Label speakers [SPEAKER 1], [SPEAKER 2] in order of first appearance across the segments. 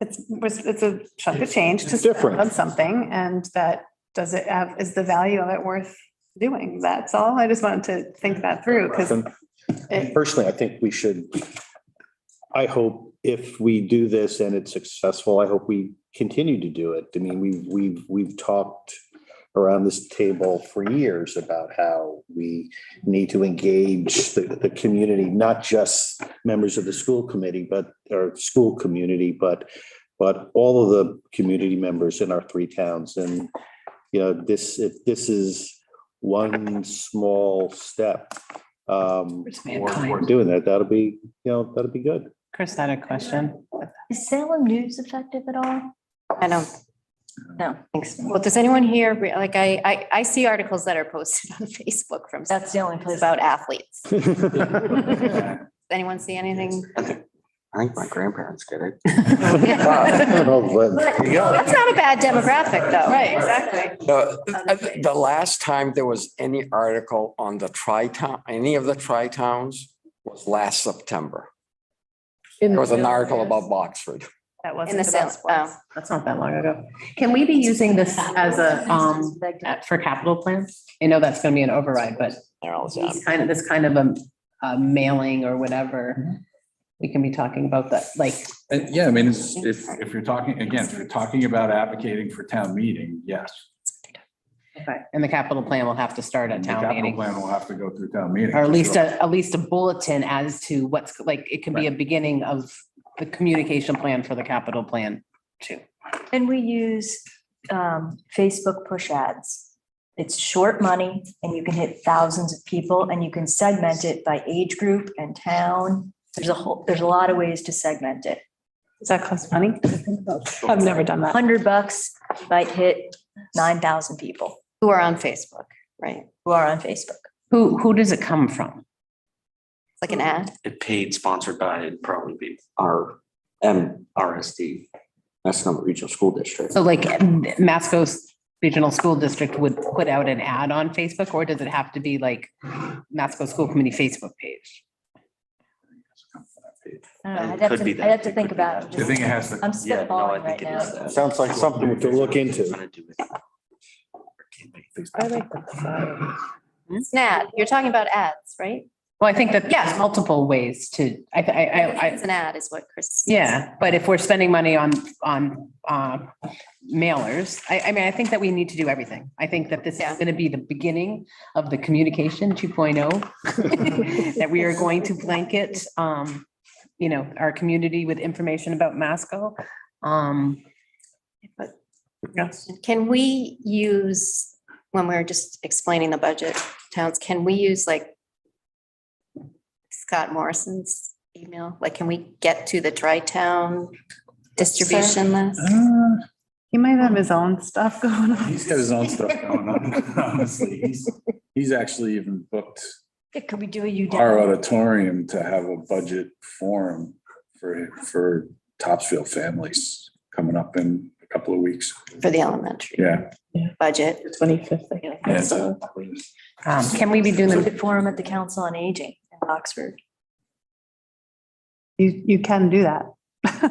[SPEAKER 1] It's, was- it's a chunk of change to
[SPEAKER 2] It's
[SPEAKER 1] spend
[SPEAKER 2] different.
[SPEAKER 1] on something and that, does it have, is the value of it worth doing? That's all. I just wanted to think that through because
[SPEAKER 2] And Personally, I think we should, I hope if we do this and it's successful, I hope we continue to do it. I mean, we, we've, we've talked around this table for years about how we need to engage the, the community, not just members of the school committee, but, or school community, but, but all of the community members in our three towns. And, you know, this, if this is one small step, um,
[SPEAKER 3] It's
[SPEAKER 2] we're,
[SPEAKER 3] mankind.
[SPEAKER 2] we're doing that, that'll be, you know, that'll be good.
[SPEAKER 4] Chris had a question.
[SPEAKER 5] Is Salem News effective at all?
[SPEAKER 6] I don't,
[SPEAKER 5] No, thanks.
[SPEAKER 6] well, does anyone here, re- like, I, I, I see articles that are posted on Facebook from,
[SPEAKER 5] That's the only place.
[SPEAKER 6] about athletes. Does
[SPEAKER 2] I
[SPEAKER 6] Anyone see anything?
[SPEAKER 7] I think my grandparents get it.
[SPEAKER 6] That's
[SPEAKER 2] don't know, but-
[SPEAKER 7] you go.
[SPEAKER 6] not a bad demographic, though.
[SPEAKER 1] Right, exactly.
[SPEAKER 7] No, The, the last time there was any article on the tri-town, any of the tri-towns was last September. There was an article about Boxford.
[SPEAKER 1] that
[SPEAKER 6] In the
[SPEAKER 1] wasn't
[SPEAKER 6] sale,
[SPEAKER 1] about sports.
[SPEAKER 6] oh,
[SPEAKER 4] That's not that long ago. Can we be using this as a, um, at- for capital plan? I know that's gonna be an override, but
[SPEAKER 7] They're all done.
[SPEAKER 4] it's kind of, this kind of a, a mailing or whatever. We can be talking about that, like,
[SPEAKER 3] And yeah, I mean, it's- if, if you're talking, again, if you're talking about advocating for town meeting, yes.
[SPEAKER 4] and the capital plan will have to start at
[SPEAKER 3] The
[SPEAKER 4] town
[SPEAKER 3] capital
[SPEAKER 4] meeting.
[SPEAKER 3] plan will have to go through town meeting.
[SPEAKER 4] Or at least, a at least a bulletin as to what's, like, it can be a beginning of the communication plan for the capital plan too.
[SPEAKER 5] And we use um, Facebook push ads. It's short money and you can hit thousands of people and you can segment it by age group and town. There's a whole, there's a lot of ways to segment it.
[SPEAKER 1] Does that cost money? I've never done that.
[SPEAKER 5] Hundred bucks might hit nine thousand people
[SPEAKER 6] Who are on Facebook, right?
[SPEAKER 5] who are on Facebook.
[SPEAKER 4] Who, who does it come from?
[SPEAKER 6] Like an
[SPEAKER 5] Mm-hmm.
[SPEAKER 6] ad?
[SPEAKER 8] it paid sponsored by, it'd probably be
[SPEAKER 7] Our M,
[SPEAKER 8] RSD.
[SPEAKER 7] that's not regional school district.
[SPEAKER 4] So like Masco Regional School District would put out an ad on Facebook or does it have to be like Masco School Committee Facebook page?
[SPEAKER 5] I don't know.
[SPEAKER 8] It
[SPEAKER 5] I'd have
[SPEAKER 8] could be
[SPEAKER 5] to,
[SPEAKER 8] that.
[SPEAKER 5] I'd have to
[SPEAKER 8] It
[SPEAKER 5] think
[SPEAKER 8] could be
[SPEAKER 5] about.
[SPEAKER 8] that.
[SPEAKER 3] I think it has to,
[SPEAKER 5] I'm
[SPEAKER 8] Yeah, no, I
[SPEAKER 5] spitballing right
[SPEAKER 8] think it is
[SPEAKER 5] now.
[SPEAKER 8] that.
[SPEAKER 2] Sounds like something to look into.
[SPEAKER 6] Snad, you're talking about ads, right?
[SPEAKER 4] Well, I think that there's multiple ways to, I, I, I, I,
[SPEAKER 6] It's an ad is what Chris.
[SPEAKER 4] yeah, but if we're spending money on, on, uh, mailers, I, I mean, I think that we need to do everything. I think that this is
[SPEAKER 6] Yeah.
[SPEAKER 4] going to be the beginning of the communication 2.0. That we are going to blanket, um, you know, our community with information about Masco. Um,
[SPEAKER 1] Yes.
[SPEAKER 6] Can we use, when we we're just explaining the budget towns, can we use like Scott Morrison's email? Like, can we get to the tri-town distribution list?
[SPEAKER 4] Um,
[SPEAKER 3] Uh,
[SPEAKER 1] He might have his own stuff going on.
[SPEAKER 3] he's got his own stuff going on, honestly. He's, he's actually even booked
[SPEAKER 5] Could we do a U?
[SPEAKER 3] our auditorium to have a budget forum for, for Topsfield families coming up in a couple of weeks.
[SPEAKER 6] For the elementary
[SPEAKER 3] Yeah.
[SPEAKER 6] budget.
[SPEAKER 3] Yeah, so-
[SPEAKER 4] um, can we be doing them
[SPEAKER 5] Forum at the Council on Aging in Oxford.
[SPEAKER 1] You, you can do that.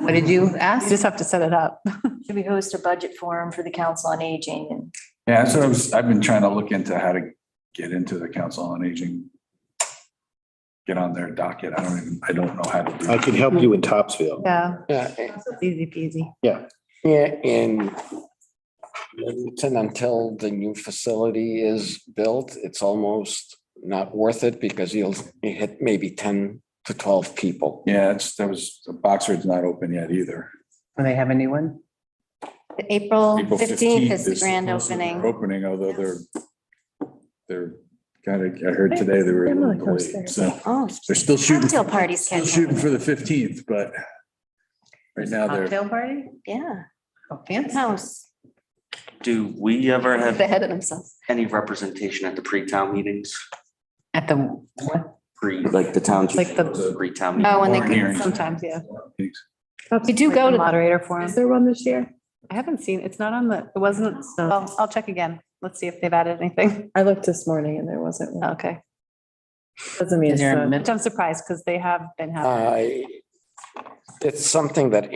[SPEAKER 4] What did you
[SPEAKER 1] You
[SPEAKER 4] ask?
[SPEAKER 1] just have to set it up.
[SPEAKER 5] Should we host a budget forum for the Council on Aging and
[SPEAKER 3] Yeah, that's what I was, I've been trying to look into how to get into the Council on Aging. Get on their docket. I don't even, I don't know how to do
[SPEAKER 2] I
[SPEAKER 3] it.
[SPEAKER 2] can help you in Topsfield.
[SPEAKER 1] Yeah,
[SPEAKER 7] Yeah,
[SPEAKER 1] it's easy peasy.
[SPEAKER 7] Yeah, in Littleton, until the new facility is built, it's almost not worth it because you'll you hit maybe ten to twelve people.
[SPEAKER 3] Yeah, it's, that was, Boxford's not open yet either.
[SPEAKER 4] Do they have a new one?
[SPEAKER 6] The April
[SPEAKER 3] April
[SPEAKER 6] fifteenth is the grand
[SPEAKER 3] supposedly their
[SPEAKER 6] opening.
[SPEAKER 3] Opening, although they're, they're, kind of, I heard today they were a little delayed, so
[SPEAKER 6] Oh,
[SPEAKER 3] they're still shooting,
[SPEAKER 6] cocktail
[SPEAKER 3] still
[SPEAKER 6] parties
[SPEAKER 3] shooting
[SPEAKER 6] scheduled.
[SPEAKER 3] for the fifteenth, but right now they're,
[SPEAKER 4] party?
[SPEAKER 6] Yeah,
[SPEAKER 4] Oh, fancy.
[SPEAKER 6] house.
[SPEAKER 8] Do we ever have
[SPEAKER 6] Ahead of themselves.
[SPEAKER 8] any representation at the pre-town meetings?
[SPEAKER 4] At the, what?
[SPEAKER 8] Pre,
[SPEAKER 7] Like the towns.
[SPEAKER 1] Like the,
[SPEAKER 8] pre-town. meeting?
[SPEAKER 6] Oh, and
[SPEAKER 3] Warren hearings.
[SPEAKER 6] they,
[SPEAKER 1] sometimes, yeah.
[SPEAKER 6] you do
[SPEAKER 1] Like
[SPEAKER 6] go
[SPEAKER 1] the
[SPEAKER 6] to,
[SPEAKER 1] Moderator forum.
[SPEAKER 4] there one this year?
[SPEAKER 1] I haven't seen, it's not on the, it wasn't, I'll, Oh. I'll check again. Let's see if they've added anything.
[SPEAKER 9] I looked this morning and there wasn't one.
[SPEAKER 1] Okay.
[SPEAKER 9] Doesn't mean
[SPEAKER 4] Is
[SPEAKER 9] it's
[SPEAKER 4] there a
[SPEAKER 9] not-
[SPEAKER 4] min-
[SPEAKER 1] Which I'm surprised because they have been having.
[SPEAKER 7] Uh, it's something that